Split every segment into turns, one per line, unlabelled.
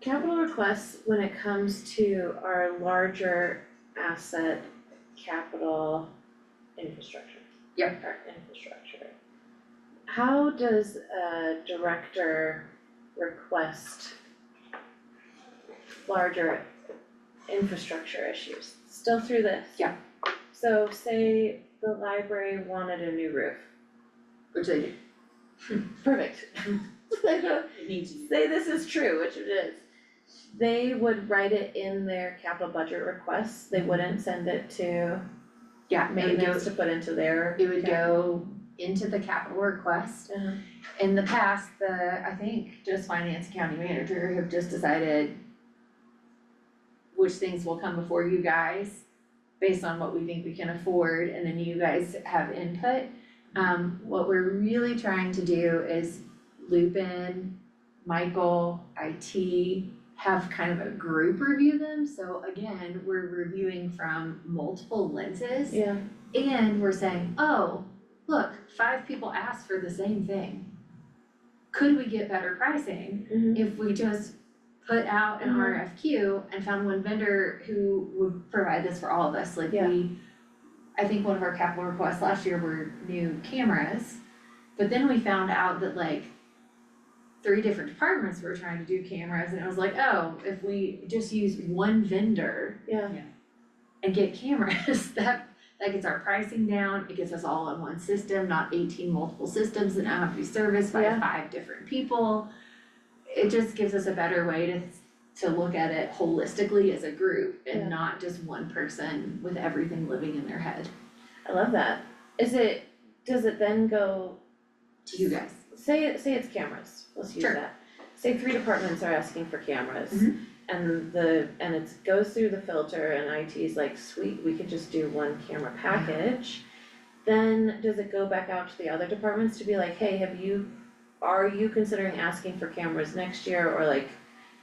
Capital requests, when it comes to our larger asset capital infrastructure.
Yep.
Our infrastructure. How does a director request larger infrastructure issues? Still through this?
Yeah.
So say the library wanted a new roof.
which they do.
Perfect.
It needs to be.
say this is true, which it is. They would write it in their capital budget requests, they wouldn't send it to
Yeah, it would go,
maintenance to put into their.
it would go into the capital request.
Uh-huh.
In the past, the, I think just finance county manager have just decided which things will come before you guys based on what we think we can afford and then you guys have input. Um, what we're really trying to do is loop in Michael, IT, have kind of a group review them. So again, we're reviewing from multiple lenses.
Yeah,
And we're saying, oh, look, five people asked for the same thing. Could we get better pricing
mhm.
if we just put out an
Mhm.
RFQ and found one vendor who would provide this for all of us, like we
Yeah.
I think one of our capital requests last year were new cameras, but then we found out that like three different departments were trying to do cameras and it was like, oh, if we just use one vendor
yeah,
and get cameras, that that gets our pricing down, it gets us all on one system, not eighteen multiple systems that now have to be serviced by
Yeah.
five different people. It just gives us a better way to to look at it holistically as a group
Yeah.
and not just one person with everything living in their head.
I love that. Is it, does it then go,
To you guys,
say it, say it's cameras, let's use
Sure.
that. Say three departments are asking for cameras.
Mhm.
And the, and it goes through the filter and IT's like, sweet, we could just do one camera package. Then does it go back out to the other departments to be like, hey, have you, are you considering asking for cameras next year or like,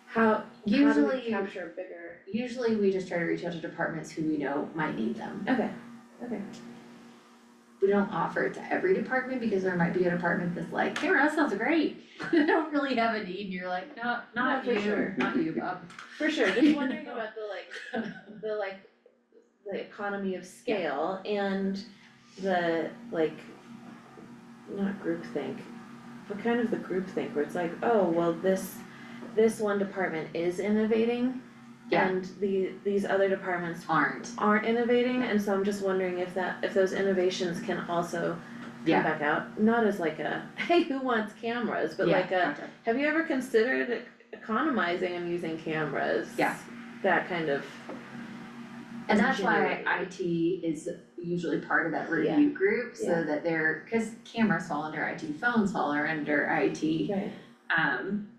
how, how do we
usually,
capture a bigger?
usually we just try to reach out to departments who we know might need them.
Okay, okay,
We don't offer it to every department because there might be a department that's like, camera, that sounds great. They don't really have a need and you're like, no,
Not
not
for
you,
sure.
not you, Bob.
for sure, just wondering about the like, the like, the economy of scale and the like, not groupthink, but kind of the groupthink where it's like, oh, well, this, this one department is innovating
Yeah.
and the, these other departments
aren't.
aren't innovating, and so I'm just wondering if that, if those innovations can also
Yeah.
come back out, not as like a, hey, who wants cameras, but
uh,
like a, have you ever considered economizing and using cameras?
Yeah.
That kind of,
And that's why IT
ingenuity.
is usually part of that review group,
Yeah.
so that they're, cause cameras fall under IT, phones fall are under IT.
right,
Um,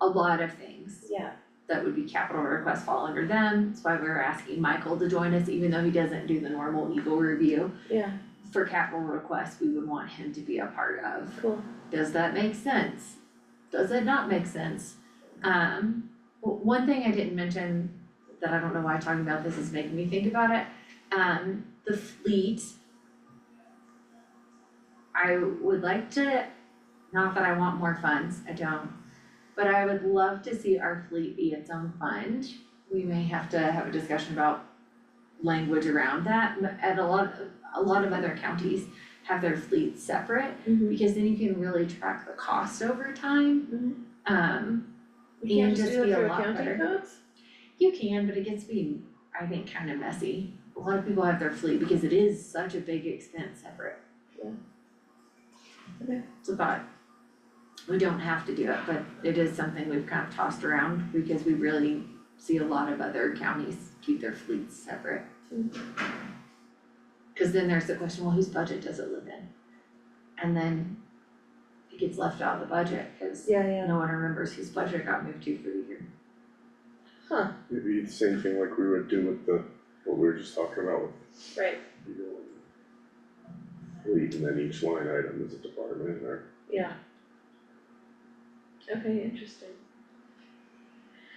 a lot of things
yeah,
that would be capital requests fall under them, that's why we were asking Michael to join us, even though he doesn't do the normal legal review.
yeah,
For capital requests, we would want him to be a part of.
cool,
does that make sense? Does it not make sense? Um, w- one thing I didn't mention that I don't know why talking about this is making me think about it, um, the fleet. I would like to, not that I want more funds, I don't, but I would love to see our fleet be its own fund. We may have to have a discussion about language around that, m- and a lot, a lot of other counties have their fleets separate
mhm.
because then you can really track the cost over time.
Mhm.
Um,
We can't
And
just
just
do it
be a
through
lot
accounting
better.
codes?
you can, but it gets to be, I think, kind of messy. A lot of people have their fleet because it is such a big expense separate.
Yeah. Okay.
It's a thought. We don't have to do it, but it is something we've kind of tossed around because we really see a lot of other counties keep their fleets separate.
Mhm.
Cause then there's the question, well, whose budget does it live in? And then it gets left out of the budget, cause
Yeah, yeah,
no one remembers whose budget got moved to for the year.
huh,
It'd be the same thing like we would do with the, what we were just talking about with,
right,
you know. Fleet and then each line item is a department or.
yeah. Okay, interesting.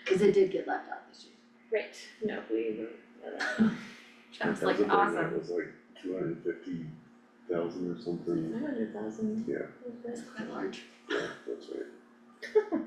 Cause it did get left out this year.
Right, no, we, uh,
I was
that
like,
was a thing
awesome.
That was like two hundred and fifty thousand or something,
hundred thousand.
Yeah.
That's quite large.
yeah, that's right.